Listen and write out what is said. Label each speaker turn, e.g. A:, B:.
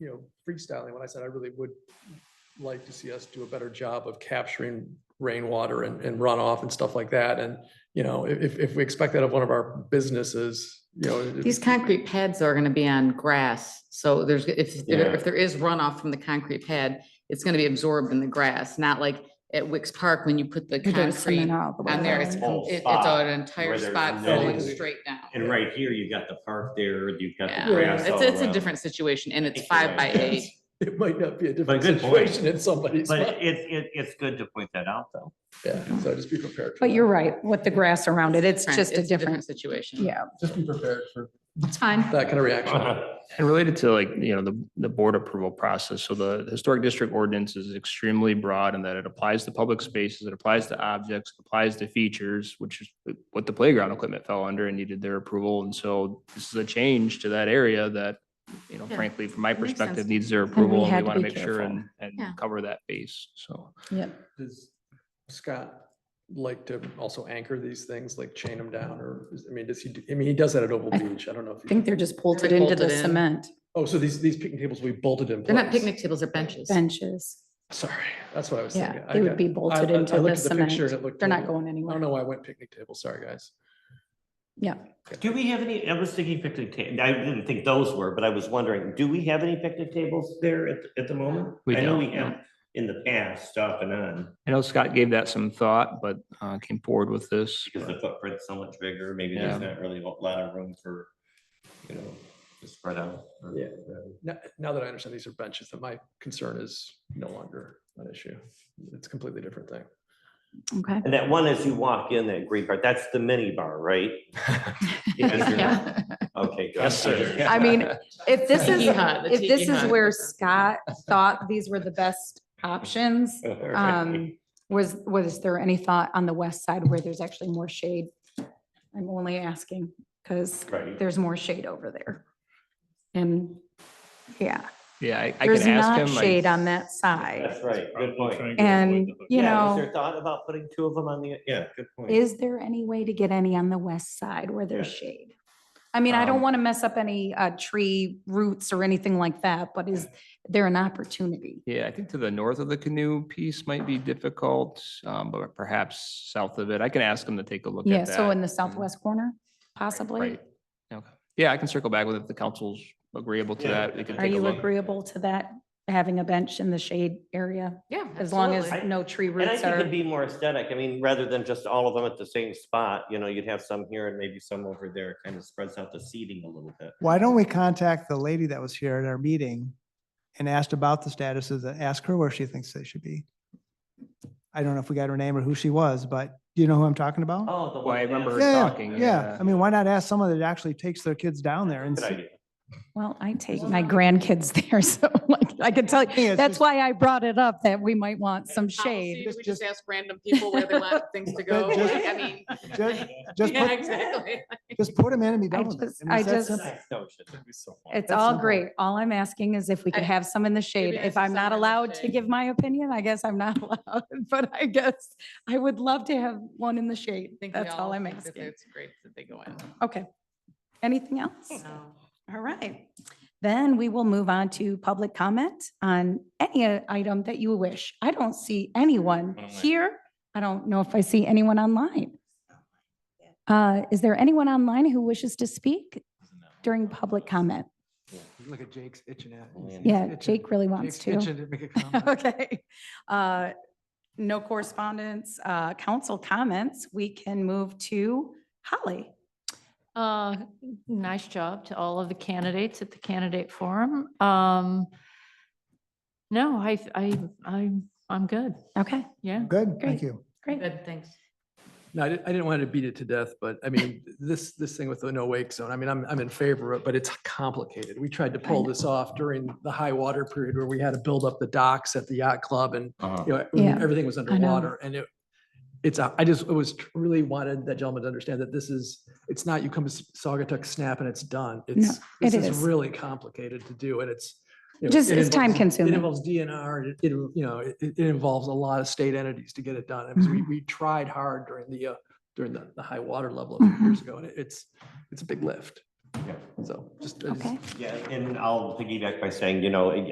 A: you know, freestyling when I said I really would like to see us do a better job of capturing rainwater and, and runoff and stuff like that. And, you know, if, if- if we expect that of one of our businesses, you know. it-
B: These concrete pads are gonna be on grass, so there's, if, there-
C: Yeah.
B: if there is runoff from the concrete pad, it's gonna be absorbed in the grass, not like at Wicks Park when you put the
D: It doesn't
B: concrete
D: cement all the way
B: on there, it's,
D: down.
C: Whole
B: it- it's
C: spot
B: an entire
C: where there's
B: spot
C: no-
B: flowing straight down.
C: And right here, you've got the park there, uh, you've got
B: Yeah,
C: the grass all
B: It's, it's a
C: around.
B: different situation and it's
C: think you're
B: five by
C: right,
B: eight.
C: yes.
A: It might not be a different
C: good point.
A: situation in somebody's.
C: But
A: mind.
C: it's, it, it's good to point that out though.
A: Yeah, so just be prepared. for
D: But
A: that.
D: you're right, with the grass around it, it's
B: Different-
D: just a
B: it's
D: different,
B: Situation.
D: yeah,
A: Just be prepared for
B: It's fine.
A: that kind of reaction.
C: Uh-huh.
E: And related to like, you know, the, the board approval process, so the historic district ordinance is extremely broad in that it applies to public spaces, it applies to objects, it applies to features, which is what the playground equipment fell under and needed their approval. And so this is a change to that area that, you know,
B: Yeah,
E: frankly, from my
B: makes sense.
E: perspective, needs their
D: we
E: approval. and
D: had to
E: We want to
D: be
E: make sure
D: careful.
E: and, and
B: Yeah.
E: cover that base, so.
D: yep.
A: Does Scott like to also anchor these things, like chain them down or, is- I mean, does he, do- I mean, he does that at Oval
D: I
A: Beach. I don't know. if
D: I
A: he-
D: think they're just bolted
B: They
D: into
B: bolt it
D: the
B: in.
D: cement
A: Oh, so these, these picnic tables will be bolted in place?
B: They're not picnic tables, they're benches.
D: benches.
A: Sorry, that's what I was thinking.
D: Yeah,
A: I
D: they
A: got-
D: would be
A: I-
D: bolted
A: I- I
D: into
A: looked
D: the
A: at picture and
D: cement.
A: it looked
D: They're not
A: totally-
D: going
A: I don't
D: anywhere.
A: know why I went picnic table. Sorry, guys.
D: Yeah,
C: Do we have any, I was thinking picnic ta, I didn't think those were, but I was wondering, do we have any picnic tables there at, at the moment?
E: We
C: I know
E: don't,
C: we
E: no.
C: have in the past, off and on,
E: I know Scott gave that some thought, but, uh, came forward with this.
C: because the footprint's so much bigger, maybe there's not really a lot of room for, you know, to spread out. or-
A: Yeah. Now, now that I understand these are benches, that my concern is no longer an issue. It's a completely different thing.
D: okay.
C: And that one, as you walk in that green part, that's the mini bar, right? Yes, you're not.
B: Yeah.
C: Okay. good.
E: Yes, sir.
D: I mean, If this is,
B: Tiki hut, the
D: if this
B: tiki
D: is
B: hut.
D: where Scott thought these were the best options,
C: All right.
D: um, was, was there any thought on the west side where there's actually more shade? I'm only asking because
C: Right.
D: there's more shade over there. And, yeah,
E: Yeah, I, I
D: there's
E: can ask him.
D: not
E: I-
D: shade on that side.
C: That's right, good point.
D: And, you
C: Yeah, is
D: know,
C: there Thought about putting two of them on the, yeah, good point.
D: is there any way to get any on the west side where there's
C: Yeah.
D: shade? I mean, I don't
E: Um,
D: want to mess up any, uh, tree roots or anything like that, but is there an opportunity?
E: Yeah, I think to the north of the canoe piece might be difficult, um, but perhaps south of it. I can ask them to take a look at
D: Yeah,
E: that.
D: so in the
E: and-
D: southwest corner, possibly?
E: Right. Okay. Yeah, I can circle back with it if the council's agreeable to
C: Yeah.
E: that. We can
D: Are
E: take a
D: you
E: look.
D: agreeable to that, having a bench in the shade area,
B: Yeah.
D: as long as
B: absolutely.
D: no tree
C: And I
D: roots
C: think it'd
D: are?
C: be more aesthetic. I mean, rather than just all of them at the same spot, you know, you'd have some here and maybe some over there. It Kind of spreads out the seating a little bit.
F: Why don't we contact the lady that was here at our meeting and asked about the status of the, ask her where she thinks they should be? I don't know if we got her name or who she was, but do you know who I'm talking about?
C: Oh, the
E: Well, I remember
C: Yeah,
F: Yeah,
E: talking,
F: yeah,
E: yeah.
F: yeah. I mean, why not ask someone that actually takes their kids down there and
C: Good
F: see?
C: idea.
D: Well, I take my grandkids there, so like, I can tell
F: Yeah,
D: you,
F: it's
D: that's
F: just-
D: why I brought it up, that we might want some
B: Policy,
D: shade.
F: Just-
B: We just
F: just-
B: ask random people where they want things to go.
F: just-
B: like, I mean.
F: Just, just
B: Yeah,
F: put,
B: exactly.
F: just put them in and be
D: I
F: done with it.
D: just-
F: mean, it's
D: I
F: that
D: just-
F: simple.
C: Nice notion.
D: It's
F: That's
D: all
F: simple.
D: great. All I'm asking is if we could
B: I-
D: have some in the shade.
B: I
D: If
B: see
D: I'm
B: somewhere in
D: not
B: the
D: allowed to
B: shade.
D: give my opinion, I guess I'm not allowed, but I guess I would love to have one in the shade.
B: I think we
D: That's all I'm
B: think that
D: asking.
B: It's great that they go
D: Okay. Anything else?
B: in. So.
D: All right. Then we will move on to public comment on any uh, item that you wish. I don't see anyone here. I don't know if I see anyone online. Uh, Is there anyone online who wishes to speak during public comment?
G: Look at Jake's itching at.
C: Oh, yeah.
D: Yeah, Jake really wants
G: Jake's
D: to.
G: itching to make a comment.
D: Okay. Uh, No correspondence, uh, council comments. We can move to Holly.
H: Uh, nice job to all of the candidates at the candidate forum. Um, no, I, I, I'm, I'm good.
D: Okay,
H: Yeah.
F: Good,
D: Great.
F: thank you.
D: great.
B: Good, thanks.
A: No, I didn't, I didn't want to beat it to death, but I mean, this, this thing with the no wake zone, I mean, I'm, I'm in favor of, it, but it's complicated. We tried to pull this off during the high water period where we had to build up the docks at the yacht club and, you know,
D: Yeah,
A: everything was
D: know.
A: underwater and it, it's, a- I just, it was tr- really wanted that gentleman to understand that this is, it's not, you come to Saugatuck Snap and it's done. It's,
D: it
A: this is
D: is.
A: really complicated to do and it's. you know,
D: Just-
A: it
D: it's time
A: involves-
D: consuming.
A: It involves DNR, and it, it, you know, it, it it involves a lot of state entities to get it done. It was-
D: Mm-hmm.
A: We, we
D: Mm-hmm.
A: tried hard during the, uh, during the, the high water level a few years ago and it- it's, it's a big lift. So just. I just-
D: Okay.
C: Yeah, and I'll piggyback by saying, you know,